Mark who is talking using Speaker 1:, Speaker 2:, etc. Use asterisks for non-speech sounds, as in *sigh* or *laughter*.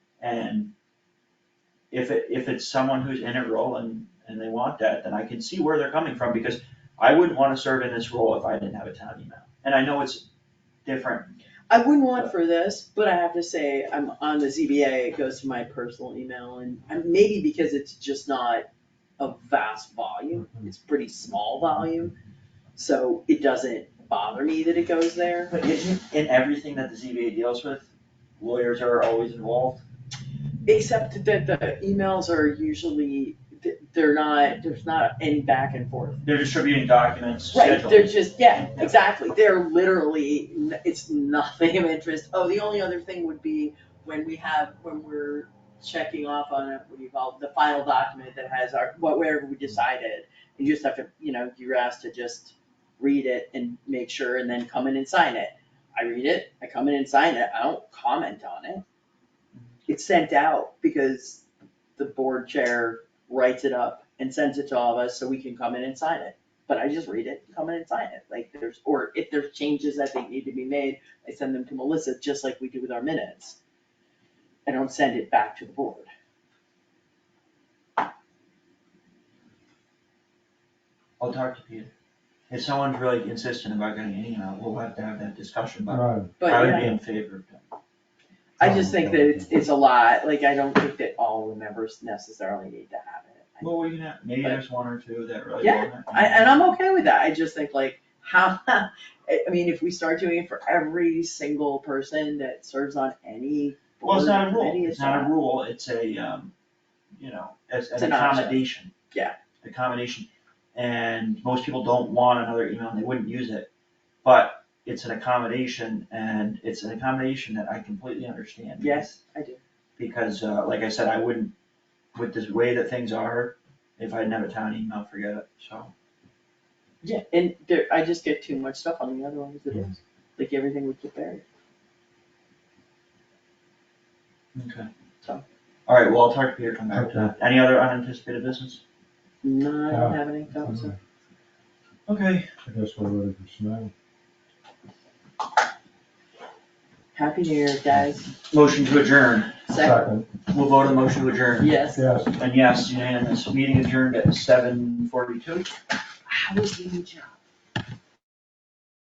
Speaker 1: And if it, if it's someone who's in a role and, and they want that, then I can see where they're coming from, because I wouldn't wanna serve in this role if I didn't have a town email. And I know it's different,
Speaker 2: I wouldn't want for this, but I have to say, I'm on the ZBA, it goes to my personal email and and maybe because it's just not a vast volume, it's pretty small volume. So it doesn't bother me that it goes there.
Speaker 1: but isn't in everything that the ZBA deals with, lawyers are always involved?
Speaker 2: Except that the emails are usually, th- they're not, there's not any back and forth.
Speaker 1: They're distributing documents,
Speaker 2: Right,
Speaker 1: schedules.
Speaker 2: they're just, yeah,
Speaker 1: Yeah.
Speaker 2: exactly, they're literally, n- it's nothing of interest, oh, the only other thing would be when we have, when we're checking off on it, what do you call, it, the final document that has our, what, wherever we decided, you just have to, you know, you're asked to just read it and make sure, and then come in and sign it. I read it, I come in and sign it, I don't comment on it. It's sent out because the board chair writes it up and sends it to all of us so we can come in and sign it but I just read it, come in and sign it, like there's, or if there's changes that think need to be made, I send them to Melissa, just like we do with our minutes. I don't send it back to the board.
Speaker 1: I'll talk to Peter. If someone's really insistent about getting an email, we'll have to have that discussion, but
Speaker 3: Right,
Speaker 1: I
Speaker 2: But
Speaker 1: would
Speaker 2: yeah,
Speaker 1: be in favor of that.
Speaker 2: I just think that it's, it's a lot, like I don't think that all the members necessarily need to have it. I-
Speaker 1: Well, we can have, maybe
Speaker 2: But-
Speaker 1: there's one or two that really
Speaker 2: Yeah,
Speaker 1: want it.
Speaker 2: I, and I'm okay with that, I just think like, how, *laughs* I, I mean, if we start doing it for every single person that serves on any
Speaker 1: Well,
Speaker 2: board
Speaker 1: it's not a
Speaker 2: committee,
Speaker 1: rule, it's
Speaker 2: it's
Speaker 1: not a
Speaker 2: not,
Speaker 1: rule, it's a, um, you know, as
Speaker 2: It's
Speaker 1: an
Speaker 2: an option.
Speaker 1: accommodation.
Speaker 2: Yeah.
Speaker 1: Accommodation, and most people don't want another email, and they wouldn't use it, but it's an accommodation, and it's an accommodation that I completely understand.
Speaker 2: yes, I do,
Speaker 1: Because, uh, like I said, I wouldn't, with this way that things are, if I didn't have a town email, forget it, so.
Speaker 2: yeah, and there, I just get too much stuff on the other ones, it is, like everything would get buried.
Speaker 1: Okay.
Speaker 2: So.
Speaker 1: Alright, well, I'll talk to Peter, come back to that, any other unanticipated business?
Speaker 2: No, I don't
Speaker 3: Yeah.
Speaker 2: have any thoughts.
Speaker 3: I
Speaker 1: Okay.
Speaker 3: guess we're ready for snow.
Speaker 2: Happy New Year, guys.
Speaker 1: Motion to adjourn,
Speaker 2: Second,
Speaker 1: we'll vote on the motion to adjourn.
Speaker 2: yes.
Speaker 3: Yes.
Speaker 1: And yes, unanimous, meeting adjourned at seven forty-two.
Speaker 2: How was the new job?